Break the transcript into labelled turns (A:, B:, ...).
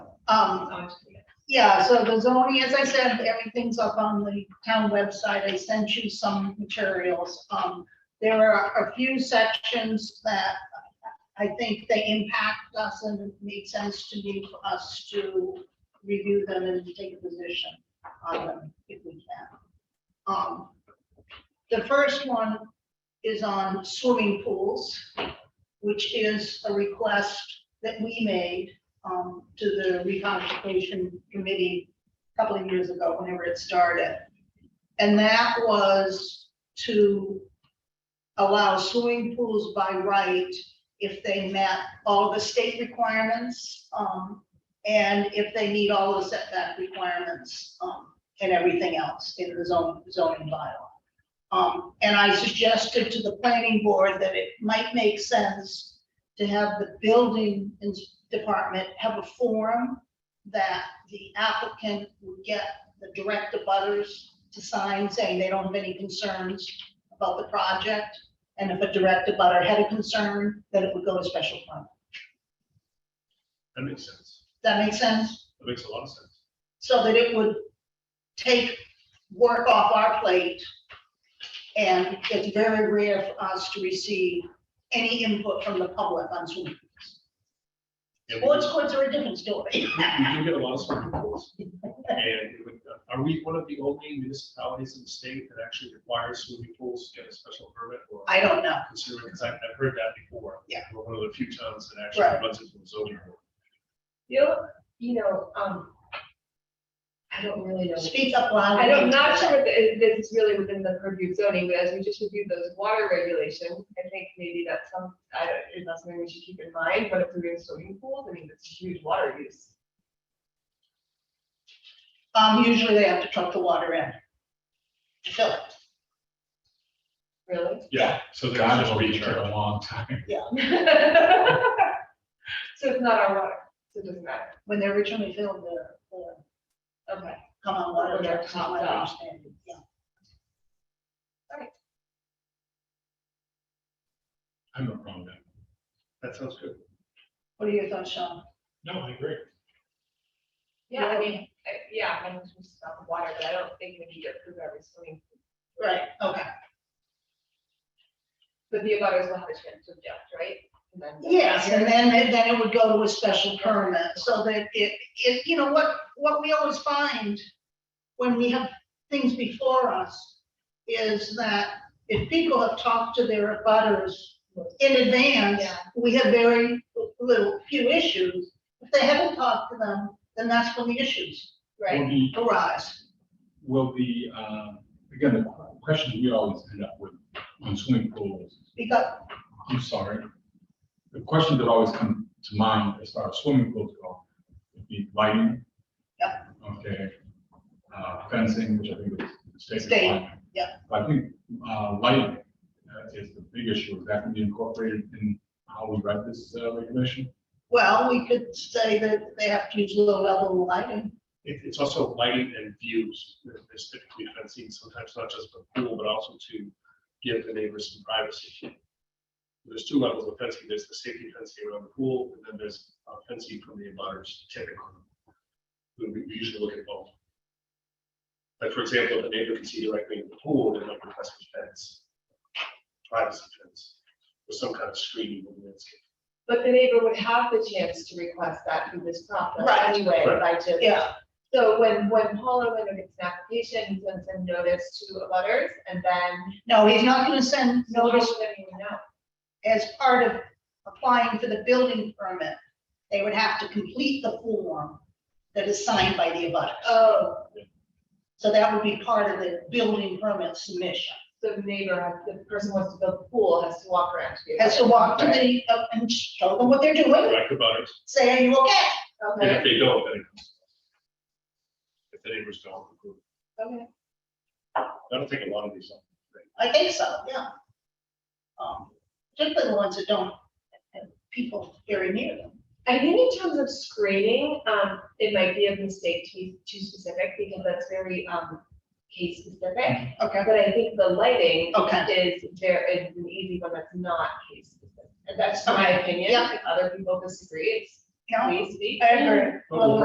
A: Um, yeah, so the zoning, as I said, everything's up on the town website. I sent you some materials. Um, there are a few sections that I think they impact us and it made sense to me for us to review them and take a position on them if we can. Um, the first one is on swimming pools, which is a request that we made um, to the reconstitution committee a couple of years ago, whenever it started. And that was to allow swimming pools by right if they met all the state requirements, um, and if they meet all the setback requirements, um, and everything else in the zone, zoning bylaw. Um, and I suggested to the planning board that it might make sense to have the building ins- department have a form that the applicant would get the direct abutters to sign saying they don't have any concerns about the project. And if a direct abutter had a concern, then it would go to special permit.
B: That makes sense.
A: That make sense?
B: That makes a lot of sense.
A: So that it would take work off our plate. And it's very rare for us to receive any input from the public on swimming pools.
B: Yeah, we
A: Boards,
B: do-
A: courts are a different story.
B: We we do get a lot of swimming pools. And it would- uh, are we one of the only municipalities in the state that actually requires swimming pools to get a special permit or
A: I don't know.
B: consider it? Because I've I've heard that before.
A: Yeah.
B: We're one of the few towns that actually
A: Right.
B: runs into a zoning board.
C: You know, you know, um, I don't really know.
A: Speak up loud.
C: I don't, not sure if it- this is really within the purview of zoning, but as we just reviewed those water regulations, I think maybe that's some, I don't, is that something we should keep in mind, but if we're doing swimming pools, I mean, it's huge water use.
A: Um, usually they have to truck the water in. to Fill it.
C: Really?
B: Yeah, so there's
D: God,
B: just
D: it'll be here
B: recharge.
D: a long time.
C: So it's not our water, so it doesn't matter.
A: When they originally filled the, the
C: Okay.
A: come on water
C: Water
A: truck, it's not my
C: truck.
A: understanding, yeah.
B: I'm not wrong then. That sounds good.
A: What are your thoughts, Sean?
B: No, I agree.
C: Yeah, I mean, I- yeah, I'm not just about the water, but I don't think we need to approve every swimming. pool.
A: Right, okay.
C: But the abutters will have a chance to object, right? And then-
A: Yes, and then, then it would go to a special permit, so that it, it, you know, what, what we always find when we have things before us is that if people have talked to their abutters in advance,
C: Yeah.
A: we have very little, few issues. If they haven't talked to them, then that's when the issues
C: Right,
D: Will the,
A: arise.
D: will the, um, again, the qu- question we always end up with on swimming pools,
A: Because,
D: I'm sorry. The questions that always come to mind as far as swimming pools go, would be lighting.
A: Yep.
D: Okay. Uh, fencing, which I think is state
A: State,
D: requirement.
A: yep.
D: But I think, uh, lighting uh, is the big issue. Is that going to be incorporated in how we write this uh, regulation?
A: well, we could say that they have to use low level lighting.
B: It, it's also lighting and views. There's typically fencing, sometimes not just for pool, but also to give the neighbors some privacy. There's two levels of fencing. There's the safety fencing around the pool, and then there's uh, fencing from the abutters typically. We we usually look at both. Like, for example, if the neighbor can see directly into the pool, they might request a fence, privacy fence, or some kind of screening of the landscape.
C: but the neighbor would have the chance to request that through this process
A: Right.
C: anyway,
B: Right.
C: by just.
A: Yeah,
C: So when, when Paul O'Bannon gets an application, he sends a notice to the butters and then.
A: no, he's not gonna send notice
C: Notice them, you know.
A: as part of applying for the building permit, they would have to complete the form that is signed by the abutters.
C: Oh,
A: So that would be part of the building permit submission.
C: so the neighbor, has- the person who wants to build the pool has to walk around. to the
A: Has to walk to
C: butters.
A: the, uh, and show them what they're doing,
B: Direct abutters,
A: say, are you okay?
B: and if
C: Okay,
B: they don't, then it comes. to us. If the neighbors don't approve.
C: okay.
B: That'll take a lot of these.
A: I think so, yeah. Um, Particularly the ones that don't have people very near them.
C: I think in terms of screening, um, it might be a mistake to be too specific because that's very, um, case specific.
A: Okay.
C: But I think the lighting
A: Mm-hmm. Okay,
C: is there is an easy one that's not case specific. And that's my
A: Okay,
C: opinion.
A: yeah.
C: If other people disagree, it's
A: yeah,
C: please speak.
A: I agree. Well,